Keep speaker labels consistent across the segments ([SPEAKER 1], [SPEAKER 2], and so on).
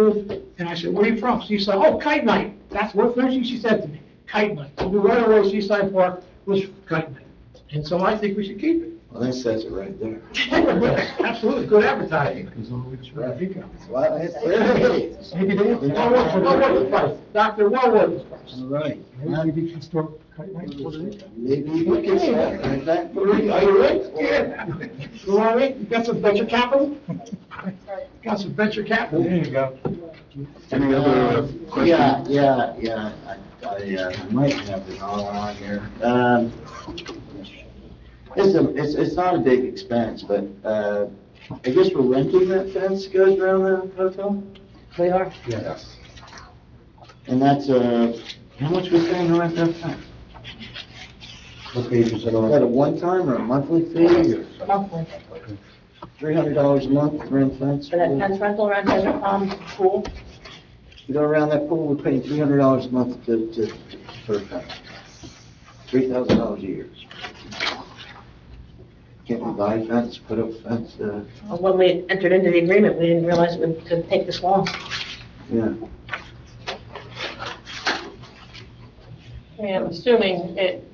[SPEAKER 1] And I said, where are you from? She said, oh, Kite Night. That's what first thing she said to me, Kite Night. So we right away, Seaside Park was Kite Night. And so I think we should keep it.
[SPEAKER 2] Well, that says it right there.
[SPEAKER 1] Absolutely, good advertising.
[SPEAKER 2] Right. That's
[SPEAKER 1] Dr.
[SPEAKER 2] why it's there it is.
[SPEAKER 1] Wellwood, Wellwood was first. Dr. Wellwood was first.
[SPEAKER 2] All right.
[SPEAKER 3] Maybe we can start cutting like what it is.
[SPEAKER 2] Maybe you can say it like that.
[SPEAKER 1] Are you ready? You want me? You got some venture capital? Got some venture capital?
[SPEAKER 3] There you go.
[SPEAKER 4] Any other
[SPEAKER 2] Uh, Yeah,
[SPEAKER 4] questions?
[SPEAKER 2] yeah, yeah, I, I uh, might have it all on here. Um, It's, a- it's, it's not a big expense, but, uh, I guess we're renting that fence that goes around the hotel?
[SPEAKER 5] We are.
[SPEAKER 3] Yes.
[SPEAKER 2] And that's, uh, how much was paying to rent that fence?
[SPEAKER 3] What page is it
[SPEAKER 2] Is that a one-time or a monthly fee or
[SPEAKER 5] Monthly.
[SPEAKER 2] three hundred dollars a month to rent fence?
[SPEAKER 5] For that fence rental around Desert Palm Pool,
[SPEAKER 2] We go around that pool, we're paying three hundred dollars a month to, to, for a fence. Three thousand dollars a year. Can't we buy a fence, put up a fence, uh,
[SPEAKER 5] when we entered into the agreement, we didn't realize it would could take this long.
[SPEAKER 2] yeah.
[SPEAKER 6] I mean, I'm assuming it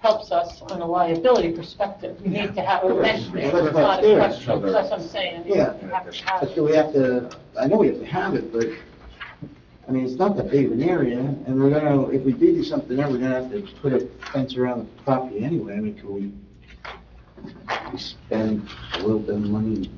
[SPEAKER 6] helps us on a liability perspective. We need to have a fence there,
[SPEAKER 2] Well,
[SPEAKER 6] it's not a
[SPEAKER 2] upstairs.
[SPEAKER 6] question, that's what I'm saying. You
[SPEAKER 2] Yeah.
[SPEAKER 6] have to have
[SPEAKER 2] But
[SPEAKER 6] it.
[SPEAKER 2] do we have to, I know we have to have it, but, I mean, it's not that big of an area, and we're gonna, if we do do something there, we're gonna have to put a fence around the property anyway, I mean, could we we spend a little bit of money?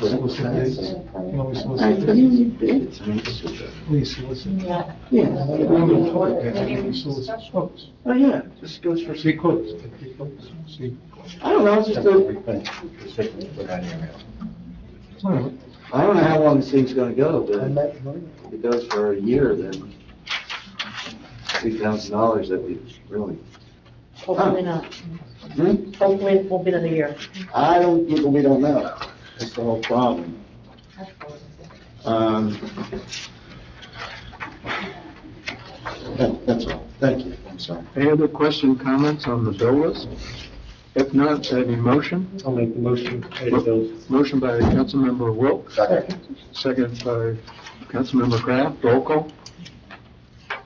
[SPEAKER 2] put up a fence?
[SPEAKER 3] Can we
[SPEAKER 2] I
[SPEAKER 3] solicit
[SPEAKER 2] think you
[SPEAKER 3] bids?
[SPEAKER 2] need bids, I mean, it's just a-
[SPEAKER 3] Please solicit.
[SPEAKER 5] Yeah.
[SPEAKER 2] yeah,
[SPEAKER 3] We don't
[SPEAKER 2] yeah.
[SPEAKER 3] report that, we can solicit quotes.
[SPEAKER 2] oh, yeah, just goes for,
[SPEAKER 3] See quotes. Get quotes. See.
[SPEAKER 2] I don't know, it's just a,
[SPEAKER 3] All right.
[SPEAKER 2] I don't know how long this thing's gonna go, but if it goes for a year, then three thousand dollars that we really,
[SPEAKER 5] Hopefully not.
[SPEAKER 2] hmm?
[SPEAKER 5] Hopefully it won't be another year.
[SPEAKER 2] I don't, you know, we don't know. That's the whole problem. Um, that- That's all. Thank you. I'm sorry.
[SPEAKER 4] Any other question, comments on the bill list? If not, any motion?
[SPEAKER 3] I'll make the motion. Pay the bills.
[SPEAKER 4] Motion by Councilmember Wilk, second by Councilmember Kraft, roll call?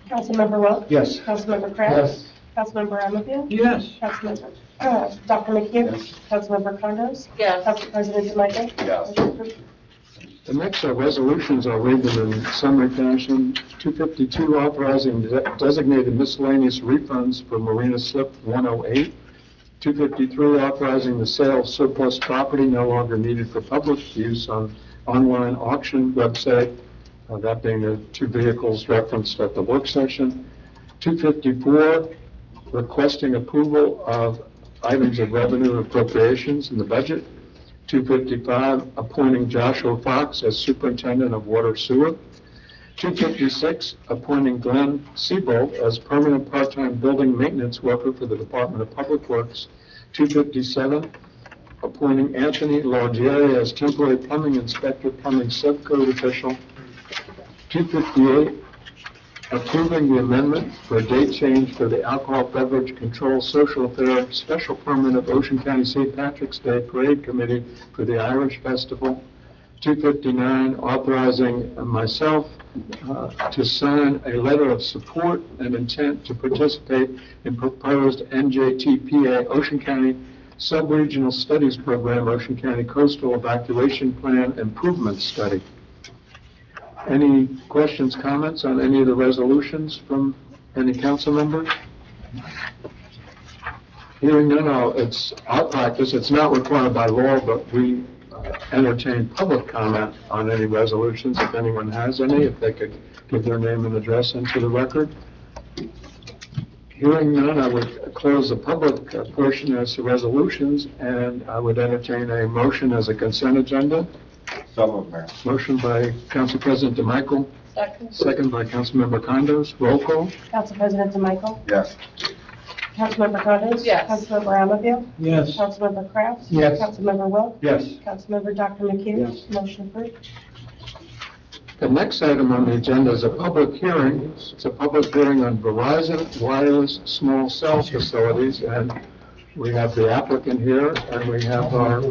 [SPEAKER 7] Councilmember Welch?
[SPEAKER 3] Yes.
[SPEAKER 7] Councilmember Kraft? Councilmember Anfield?
[SPEAKER 1] Yes.
[SPEAKER 7] Councilmember, uh, Dr. McHugh?
[SPEAKER 2] Yes.
[SPEAKER 7] Councilmember Condos?
[SPEAKER 6] Yes,
[SPEAKER 7] Council President DeMichael? Yes.
[SPEAKER 4] The next are resolutions, I'll read them in summary fashion. 252, authorizing de- designated miscellaneous refunds for Marina Slip 108. 253, authorizing the sale of surplus property no longer needed for public use on online auction website, uh, that being the two vehicles referenced at the work session. 254, requesting approval of items of revenue appropriations in the budget. 255, appointing Joshua Fox as superintendent of water sewer. 256, appointing Glenn Seabolt as permanent part-time building maintenance worker for the Department of Public Works. 257, appointing Anthony Laudieri as temporary plumbing inspector, plumbing subcode official. 258, approving the amendment for a date change for the Alcohol Beverage Control Social Fair Special Permit of Ocean County St. Patrick's Day Parade Committee for the Irish Festival. 259, authorizing myself uh, to sign a letter of support and intent to participate in proposed NJTPA Ocean County Subregional Studies Program, Ocean County Coastal Evacuation Plan Improvement Study. Any questions, comments on any of the resolutions from any council members? Hearing none, I'll- it's our practice, it's not required by law, but we uh, entertain public comment on any resolutions, if anyone has any, if they could give their name and address into the record. Hearing none, I would close the public uh, portion as to resolutions, and I would entertain a motion as a consent agenda. Motion by Council President DeMichael,
[SPEAKER 6] second,
[SPEAKER 4] second by Councilmember Condos. Roll call?
[SPEAKER 7] Council President DeMichael?
[SPEAKER 4] Yes.
[SPEAKER 7] Councilmember Condos?
[SPEAKER 6] Yes.
[SPEAKER 7] Councilmember Anfield?
[SPEAKER 3] Yes.
[SPEAKER 7] Councilmember Kraft?
[SPEAKER 3] Yes.
[SPEAKER 7] Councilmember Welch?
[SPEAKER 4] Yes.
[SPEAKER 7] Councilmember Dr. McHugh?
[SPEAKER 2] Yes.
[SPEAKER 7] Motion approved.
[SPEAKER 4] The next item on the agenda is a public hearing. It's a public hearing on Verizon wireless small cell facilities, and we have the applicant here, and we have our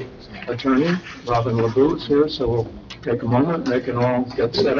[SPEAKER 4] attorney, Robin LaBousse, here, so we'll take a moment, they can all get set up.